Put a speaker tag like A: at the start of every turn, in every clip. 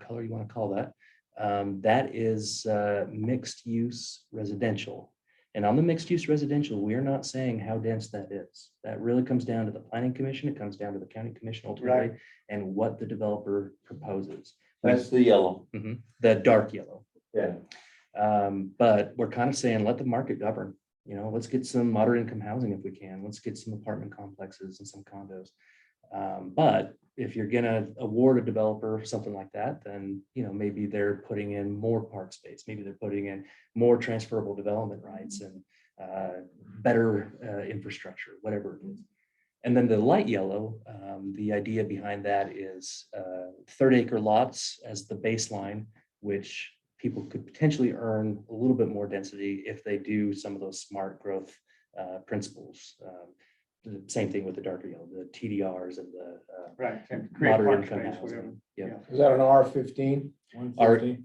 A: color you want to call that. Um, that is uh, mixed use residential. And on the mixed use residential, we're not saying how dense that is. That really comes down to the planning commission. It comes down to the county commission ultimately and what the developer proposes.
B: That's the yellow.
A: The dark yellow.
B: Yeah.
A: Um, but we're kind of saying, let the market govern. You know, let's get some moderate income housing if we can. Let's get some apartment complexes and some condos. Um, but if you're gonna award a developer something like that, then, you know, maybe they're putting in more park space. Maybe they're putting in more transferable development rights and uh, better uh, infrastructure, whatever it is. And then the light yellow, um, the idea behind that is uh, third acre lots as the baseline, which people could potentially earn a little bit more density if they do some of those smart growth uh, principles. Um, The same thing with the darker yellow, the TDRs and the uh,
C: Right. and create
A: moderate income
C: park space, whatever.
A: housing. Yeah,
D: Is that an R fifteen?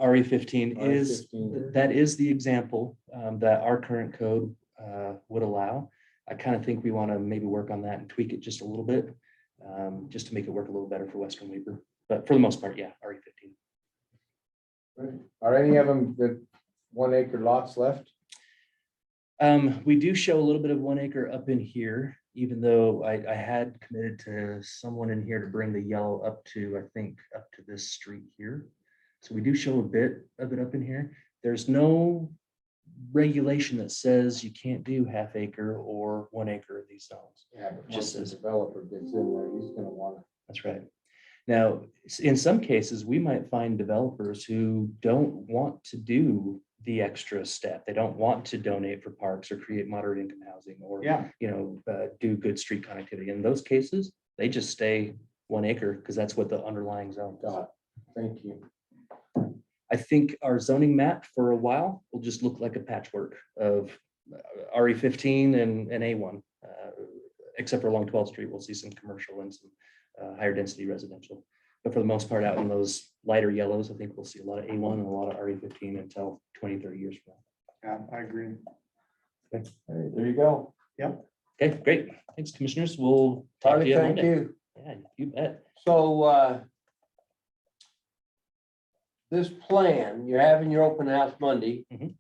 A: RE
D: E
A: fifteen is Th- That is the example um, that our current code uh, would allow. I kind of think we want to maybe work on that and tweak it just a little bit, um, just to make it work a little better for Western Weaver. But for the most part, yeah, RE fifteen.
D: Are any of them the one acre lots left?
A: Um, we do show a little bit of one acre up in here, even though I, I had committed to someone in here to bring the yellow up to, I think, up to this street here. So we do show a bit of it up in here. There's no regulation that says you can't do half acre or one acre of these zones.
D: Yeah, but
A: Just
D: once the
A: as-
D: developer gets in there, he's gonna wanna.
A: That's right. Now, s- in some cases, we might find developers who don't want to do the extra step. They don't want to donate for parks or create moderate income housing or
C: Yeah,
A: you know, uh, do good street connectivity. In those cases, they just stay one acre because that's what the underlying zone. is.
D: Got it. Thank you.
A: I think our zoning map for a while will just look like a patchwork of RE fifteen and, and A one. uh, Except for along twelfth street, we'll see some commercial and some uh, higher density residential. But for the most part, out in those lighter yellows, I think we'll see a lot of A one and a lot of RE fifteen until 20, 30 years from
C: yeah, I agree.
D: All right, There you go.
A: now. Okay, great. Thanks, commissioners. We'll talk to
D: Charlie,
A: you on
D: thank
A: Monday.
D: you.
A: Yeah, you bet.
D: So, uh, this plan, you're having your open house Monday.
A: Mhm.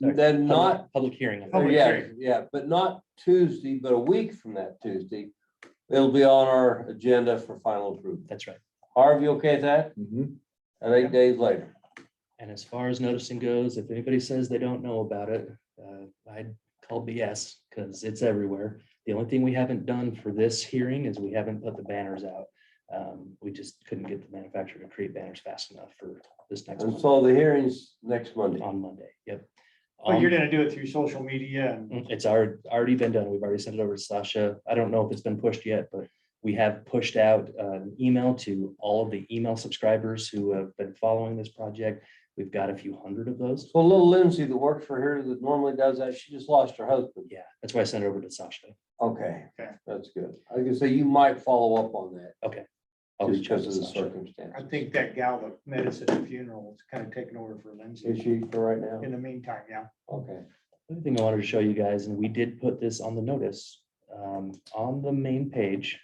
D: Then
A: Public-
D: not
A: Public hearing. on that.
C: Public
D: Yeah,
C: hearing.
D: yeah, but not Tuesday, but a week from that Tuesday. It'll be on our agenda for final approval.
A: That's right.
D: Harvey, okay with that? And eight days later.
A: And as far as noticing goes, if anybody says they don't know about it, uh, I'd call BS because it's everywhere. The only thing we haven't done for this hearing is we haven't put the banners out. Um, We just couldn't get the manufacturer to create banners fast enough for this next
D: And
A: one
D: so the hearing's next Monday.
A: on Monday. Yep.
C: But you're
A: Um, mm,
C: gonna do it through social media and
A: It's already, already been done. We've already sent it over to Sasha. I don't know if it's been pushed yet, but we have pushed out uh, an email to all of the email subscribers who have been following this project. We've got a few hundred of those.
D: So little Lindsay that works for her that normally does that, she just lost her husband.
A: Yeah, that's why I sent it over to Sasha.
D: Okay,
C: Okay.
D: that's good. I was gonna say you might follow up on that
A: I'll
D: just
A: reach out
D: because
A: to
D: of the
A: Sasha.
D: circumstance.
C: I think that gal that met us at the funeral is kind of taking over for
D: Is
C: Lindsay
D: she for right now?
C: in the meantime, yeah.
D: Okay.
A: Other thing I wanted to show you guys, and we did put this on the notice, um, on the main page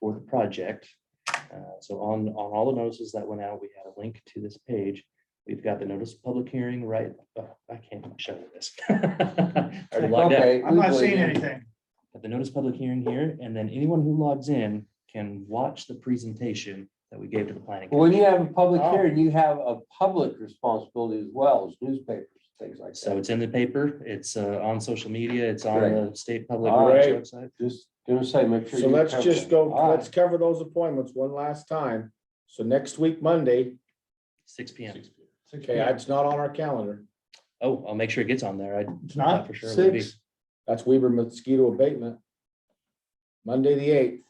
A: for the project. Uh, So on, on all the notices that went out, we had a link to this page. We've got the notice of public hearing, right? oh, I can't show you this. I already logged out.
D: Okay.
C: I'm not
D: legally
C: seeing
D: then.
C: anything.
A: Got the notice of public hearing here, and then anyone who logs in can watch the presentation that we gave to the planning.
D: When you have a public
C: Oh.
D: hearing, you have a public responsibility as well as newspapers, things like that.
A: So it's in the paper, it's uh, on social media, it's on the state public
D: All
A: works
E: right.
A: website.
D: Just gonna say, make sure.
E: So
D: you
E: let's
D: cover
E: just
D: that.
E: go,
D: All
E: let's cover those appointments one last time. So next week, Monday,
A: Six P M.
E: okay, it's not on our calendar.
A: Oh, I'll make sure it gets on there. I
C: It's
A: thought
C: not,
A: for sure. it would be.
E: Six, that's Weaver mosquito abatement. Monday, the eighth,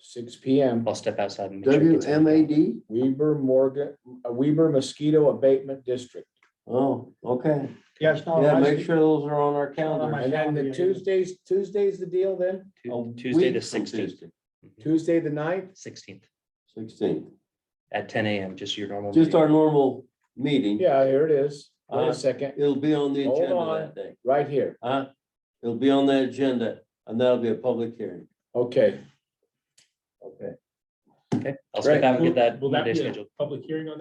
E: six P M,
A: I'll step outside and.
D: right.
A: make sure it gets on.
D: WMAD?
E: Weaver Morgan, uh, Weaver mosquito abatement district.
D: Oh, okay.
C: yeah, it's not. on
D: Yeah,
C: my
D: make
C: sheet.
D: sure those are on our
C: my
D: calendar.
E: And then the Tuesdays, Tuesday's the deal then,
A: Tu-
D: A
A: Tuesday
D: week
A: the
D: from
A: sixteenth, Mm-hmm.
D: Tuesday,
E: Tuesday, the ninth,
A: sixteenth
D: 16th.
A: at ten AM, just your normal.
D: Just
A: meeting.
D: our normal meeting.
E: yeah, here it is, wait
D: Uh,
E: a second,
D: It'll be on the
E: Hold
D: agenda
E: on.
D: that day.
E: right here,
D: Huh? It'll be on the agenda and that'll be a public hearing.
E: okay.
D: Okay.
A: I'll step
E: Right.
A: out and get
F: Will-
A: that.
F: Will that
A: Monday
F: be a
A: scheduled.
F: public hearing on that?